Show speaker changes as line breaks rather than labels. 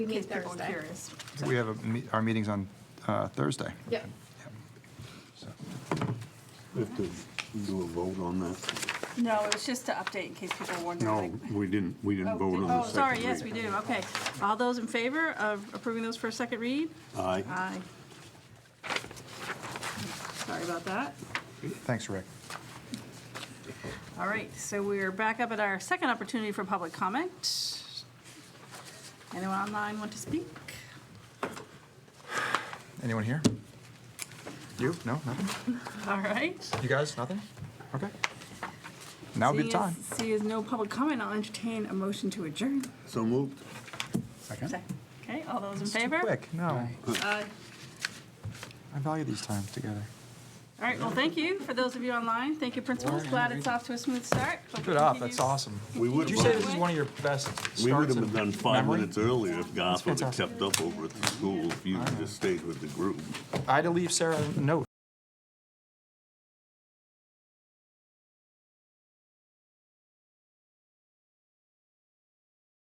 We
In
meet
case people are
Thursday.
curious.
We have, a me- our meeting's on uh, Thursday.
Yep.
So-
We have to do a vote on that.
No, it was just to update in case people were wondering.
No,
like-
we didn't, we didn't vote on the
Oh,
second.
sorry, yes, we
reading.
do, okay. All those in favor of approving those for a second read?
Aye.
Aye. Sorry about that.
Thanks, Rick.
All right, so we're back up at our second opportunity for public comment. Anyone online want to speak?
Anyone here? You? No, nothing?
All right.
You guys, nothing? Okay. Now would be the
Seeing
time.
as- Seeing as no public comment, I'll entertain a motion to adjourn.
So moved.
Okay, all those in
It's too
favor?
Quick, no.
Aye.
I value these times together.
All right, well, thank you for those of you online. Thank you, principals. Glad it's off to a smooth start. Hope
Good
it
off,
continues-
that's awesome.
We would
Did you
have-
say this is one of your best
We would
starts
have
in
done five
memory?
minutes earlier if Garth would have
fantastic.
kept up over at the school, if you just stayed with the group.
I had to leave Sarah a note.